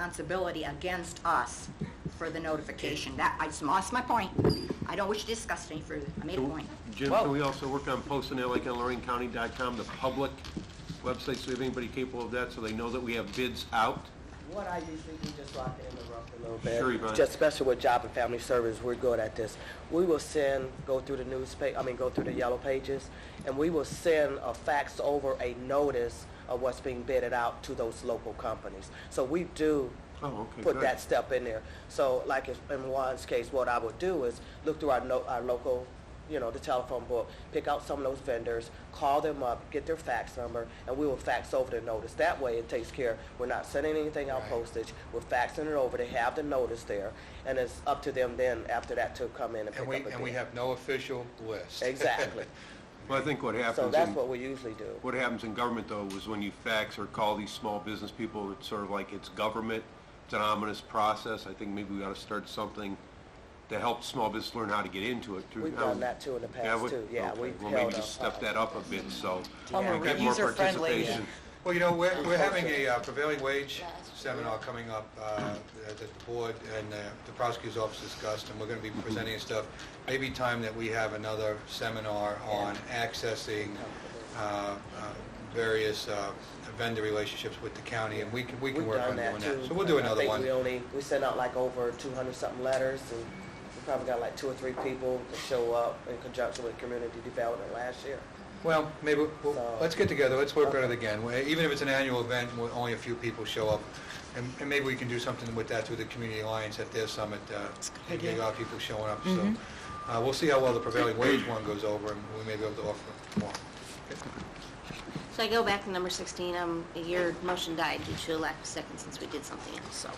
responsibility against us for the notification. That, I just lost my point. I don't wish to discuss it any further. I made a point. Jim, can we also work on posting that like on lorainecounty.com, the public website, so we have anybody capable of that, so they know that we have bids out? What I usually do, just so I can interrupt a little bit. Sure, Yvonne. Just especially with Job and Family Service, we're good at this. We will send, go through the newspaper, I mean, go through the yellow pages, and we will send a fax over a notice of what's being bidded out to those local companies. So we do Oh, okay, put good. that step in there. So like if- in Juan's case, what I would do is look through our, no- our local, you know, the telephone book, pick out some of those vendors, call them up, get their fax number, and we will fax over the notice. That way it takes care, we're not sending anything out postage, we're faxing it over, they have the notice there, and it's up to them then after that to come in and pick And up we, a bid. and we have no official list. Exactly. Well, I think what happens. So that's in- what we usually do. What happens in government, though, is when you fax or call these small business people, it's sort of like it's government, it's an ominous process. I think maybe we ought to start something to help small business learn how to get into it. through- We've done that, too, in the past, we- too. Yeah, okay. we've Well, maybe held just a- step that up a bit, so Homer, we get more user-friendly. participation. Well, you know, we're, we're having a uh, prevailing wage seminar coming up uh, that the board and uh, the prosecutor's office discussed, and we're going to be presenting stuff. Maybe time that we have another seminar on accessing uh, uh, various uh, vendor relationships with the county, and we can, we can We've work on done that doing too. that. So we'll do another I think we one. only, we sent out like over 200 something letters and we probably got like two or three people to show up in conjunction with community development last year. Well, maybe, we'll- So- let's get together, let's work on it again. We- Even if it's an annual event, where only a few people show up, and and maybe we can do something with that through the Community Alliance at their summit, uh, and get a lot of people showing up, so. uh, We'll see how well the prevailing wage one goes over, and we may be able to offer more. So I go back to number 16, um, your motion died due to a lack of second since we did something else, so.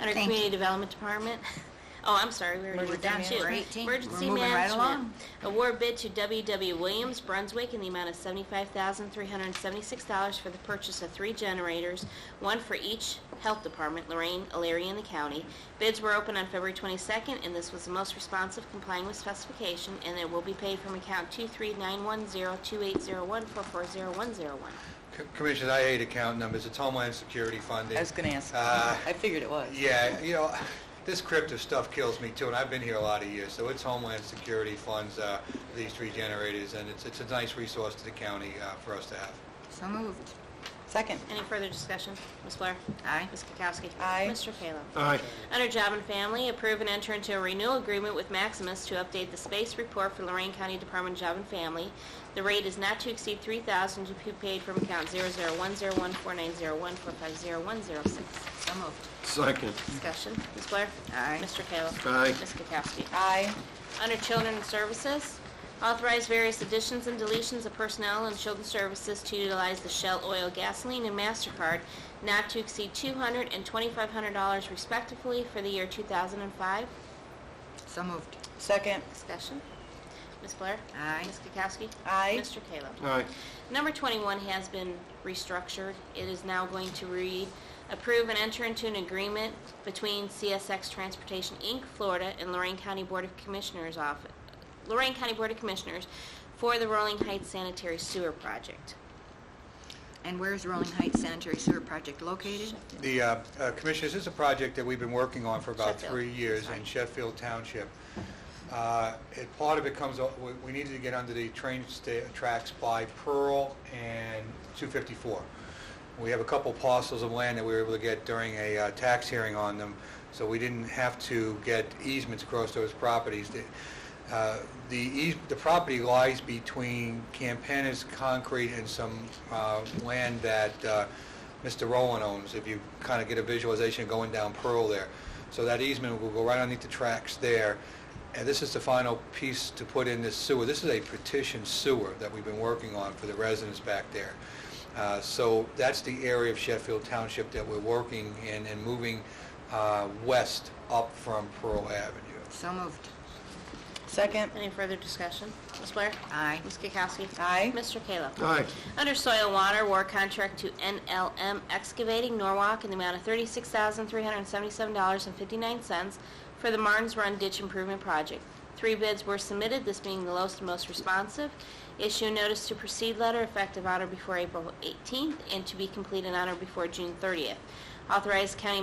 Under Thank Community Development Department, oh, I'm sorry, we already were down Emergency to. management. We're Emergency moving right Management. along. Award bid to WW Williams Brunswick in the amount of $75,376 for the purchase of three generators, one for each health department, Lorraine, Alariah, and the county. Bids were open on February 22nd, and this was the most responsive complying with specification, and it will be paid from account 239102801440101. C- Commissioners, I hate account numbers, it's Homeland Security funding. I was going to ask. Uh, I figured it was. Yeah, you know, this crypto stuff kills me too, and I've been here a lot of years, so it's Homeland Security funds uh, these three generators, and it's it's a nice resource to the county uh, for us to have. So moved. Second. Any further discussion? Ms. Blair? Aye. Ms. Kukowski? Aye. Mr. Kayla? Aye. Under Job and Family, approve and enter into a renewal agreement with Maximus to update the space report for Lorraine County Department of Job and Family. The rate is not to exceed three thousand to be paid from account zero zero one zero one four nine zero one four five zero one zero six. So moved. Second. Discussion. Ms. Blair? Aye. Mr. Kayla? Aye. Ms. Kukowski? Aye. Under Children and Services, authorize various additions and deletions of personnel and Children's Services to utilize the Shell Oil Gasoline and MasterCard not to exceed $200 and $2,500 respectively for the year 2005. So moved. Second. Discussion. Ms. Blair? Aye. Ms. Kukowski? Aye. Mr. Kayla? Aye. Number 21 has been restructured. It is now going to read, "Approve and enter into an agreement between CSX Transportation, Inc., Florida, and Lorraine County Board of Commissioners off, Lorraine County Board of Commissioners for the Rolling Heights Sanitary Sewer Project." And where is Rolling Heights Sanitary Sewer Project located? The, uh, uh, Commissioners, this is a project that we've been working on for about Sheffield. three years in Sheffield Township. Uh, it- Part of it comes, o- we- we needed to get under the train sta- tracks by Pearl and 254. We have a couple parcels of land that we were able to get during a uh, tax hearing on them, so we didn't have to get easements across those properties. The- uh, The eas- the property lies between Campanas Concrete and some uh, land that uh, Mr. Rowland owns, if you kind of get a visualization going down Pearl there. So that easement will go right underneath the tracks there. And this is the final piece to put in this sewer. This is a petition sewer that we've been working on for the residents back there. Uh, So that's the area of Sheffield Township that we're working in and moving uh, west up from Pearl Avenue. So moved. Second. Any further discussion? Ms. Blair? Aye. Ms. Kukowski? Aye. Mr. Kayla? Aye. Under Soil and Water, war contract to NLM Excavating Norwalk in the amount of $36,377.59 for the Martins Run Ditch Improvement Project. Three bids were submitted, this being the lowest and most responsive. Issue notice to proceed letter effective honor before April 18th and to be completed honor before June 30th. Authorize county